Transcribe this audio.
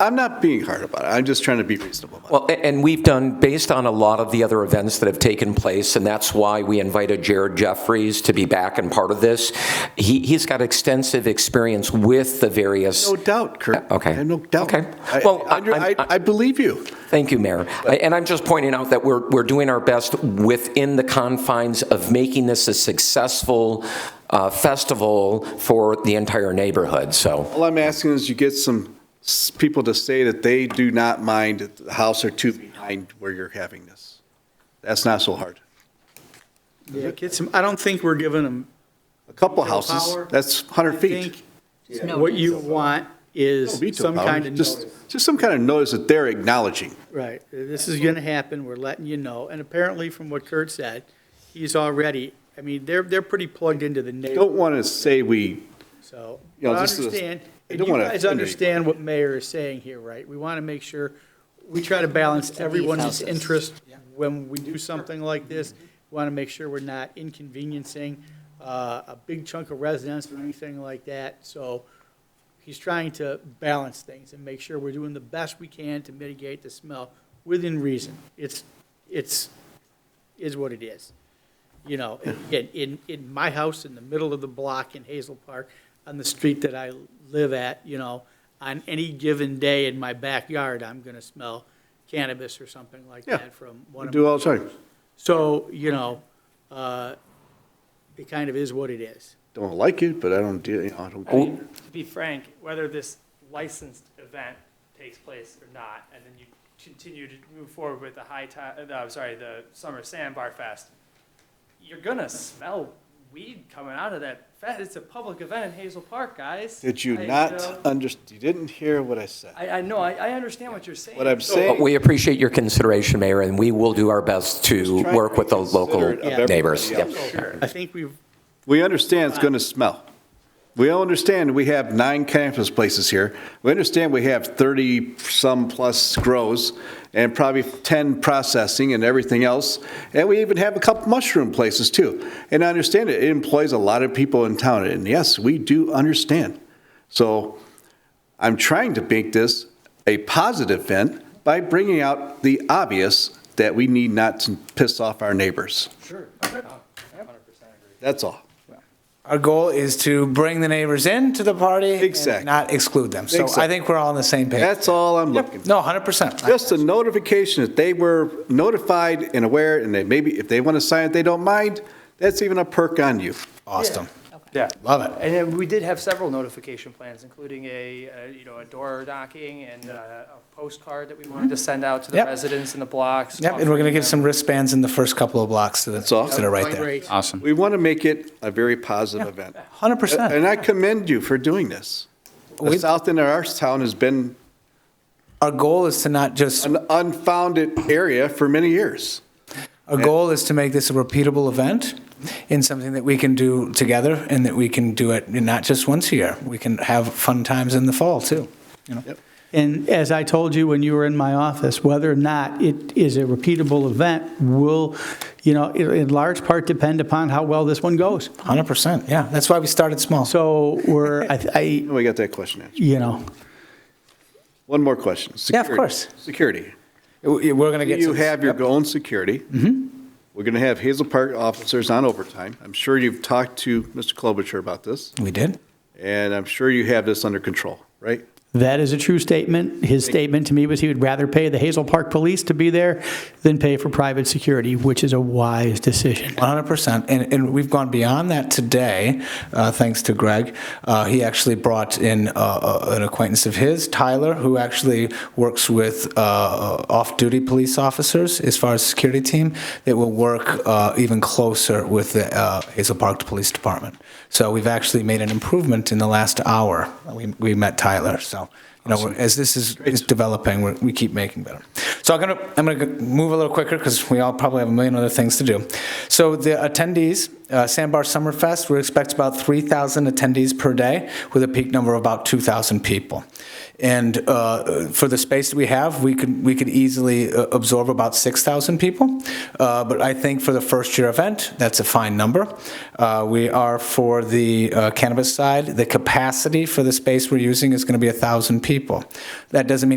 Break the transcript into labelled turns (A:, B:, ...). A: I'm not being hard about it. I'm just trying to be reasonable.
B: Well, a- and we've done, based on a lot of the other events that have taken place, and that's why we invited Jared Jeffries to be back and part of this. He, he's got extensive experience with the various,
A: No doubt, Kurt.
B: Okay.
A: I have no doubt.
B: Okay.
A: I-
B: Well,
A: I- I,
B: I-
A: I- I believe you.
B: thank you, Mayor. I- And I'm just pointing out that we're, we're doing our best within the confines of making this a successful uh, festival for the entire neighborhood, so.
A: All I'm asking is you get some s- people to say that they do not mind the house or two behind where you're having this. That's not so hard.
C: Get some, I don't think we're giving them.
A: A couple houses,
C: Power.
A: that's 100
C: I
A: feet.
C: think What you want
A: No
C: is
A: veto
C: some
A: power,
C: kind of
A: just-
C: notice.
A: Just some kind of notice that they're acknowledging.
C: Right, this is going to happen, we're letting you know. And apparently, from what Kurt said, he's already, I mean, they're, they're pretty plugged into the
A: Don't
C: neighborhood,
A: want to say we,
C: so.
A: you know,
C: I
A: this is-
C: understand,
A: they
C: and
A: uh, don't
C: you
A: wanna
C: guys
A: offend
C: understand what Mayor is saying here, right? We want to make sure, we try to balance everyone's interest when we do something like this. We Want to make sure we're not inconveniencing uh, a big chunk of residents or anything like that. So he's trying to balance things and make sure we're doing the best we can to mitigate the smell within reason. It's, it's, is what it is. You know, in, in, in my house, in the middle of the block in Hazel Park, on the street that I live at, you know, on any given day in my backyard, I'm gonna smell cannabis or something like
A: Yeah.
C: that from
A: we
C: one of
A: do
C: my.
A: all the time.
C: So, you know, uh, it kind of is what it is.
A: Don't like it, but I don't, do- you know, I don't. care.
D: to be frank, whether this licensed event takes place or not, and then you continue to move forward with the high tide, I'm sorry, the summer sandbar fest, you're gonna smell weed coming out of that fest. It's a public event in Hazel Park, guys.
A: Did you
D: I, know-
A: not under, you didn't hear what I said?
D: I, I know, I, I understand what you're saying.
A: What I'm
D: So-
A: saying-
B: But we appreciate your consideration, Mayor, and we will do our best to
A: trying to
B: work with the
A: be
B: local
A: considerate of
C: everybody
B: neighbors.
A: else.
B: Yep.
D: Oh, Sure.
C: I think we've,
A: We understand it's going to smell. We all understand we have nine campus places here. We understand we have 30-some plus grows and probably 10 processing and everything else. And we even have a couple mushroom places too. And I understand it, it employs a lot of people in town. And yes, we do understand. So I'm trying to make this a positive event by bringing out the obvious that we need not to piss off our neighbors.
D: Sure. I 100% agree.
A: That's all.
E: Our goal is to bring the neighbors into the party
A: Exactly.
E: and not exclude them. So
A: Exactly.
E: I think we're all on the same page.
A: That's all I'm looking for.
E: Yep. No, 100%.
A: Just a notification that they were notified and aware, and that maybe if they want to sign it, they don't mind, that's even a perk on you.
E: Awesome.
D: Yeah.
E: Love it.
D: And then we did have several notification plans, including a, uh, you know, a door knocking and uh, a postcard that we wanted to send out to the
E: Yep.
D: residents in the blocks.
E: Yep, and we're going to give
D: offering
E: some wristbands in the first couple of blocks to the,
A: all.
E: that are right there.
C: great,
F: Awesome.
A: We want to make it a very positive event.
E: 100%.
A: And I commend you for doing this. The
E: We-
A: south end of our town has been
E: Our goal is to not just,
A: an unfounded area for many years.
E: our goal is to make this a repeatable event in something that we can do together and that we can do it not just once a year. We can have fun times in the fall, too. You know,
C: And as I told you when you were in my office, whether or not it is a repeatable event will, you know, in- in large part depend upon how well this one goes.
E: 100%, yeah. That's why we started small.
C: So we're, I, I-
A: And we got that question answered.
C: you know,
A: One more question.
E: Yeah, of
A: Security.
E: course.
A: Security.
E: We- We're going to get Mm-hmm. to
A: You
E: this.
A: have your own security. We're going to have Hazel Park officers on overtime. I'm sure you've talked to Mr. Klobuchar about this,
E: We did.
A: and I'm sure you have this under control, right?
C: that is a true statement. His statement to me was he would rather pay the Hazel Park Police to be there than pay for private security, which is a wise decision.
E: 100%. And, and we've gone beyond that today, uh, thanks to Greg. Uh, he actually brought in uh, uh, an acquaintance of his, Tyler, who actually works with uh, off duty police officers as far as security team that will work uh, even closer with the uh, Hazel Park Police Department. So we've actually made an improvement in the last hour. We, we met Tyler. So, you know, as this is, is developing, we're, we keep making better. So I'm gonna, I'm gonna move a little quicker because we all probably have a million other things to do. So the attendees, uh, Sandbar Summerfest, we expect about 3,000 attendees per day with a peak number of about 2,000 people. And uh, for the space that we have, we could, we could easily uh, absorb about 6,000 people. Uh, But I think for the first-year event, that's a fine number. Uh, We are, for the uh, cannabis side, the capacity for the space we're using is going to be 1,000 people. That doesn't mean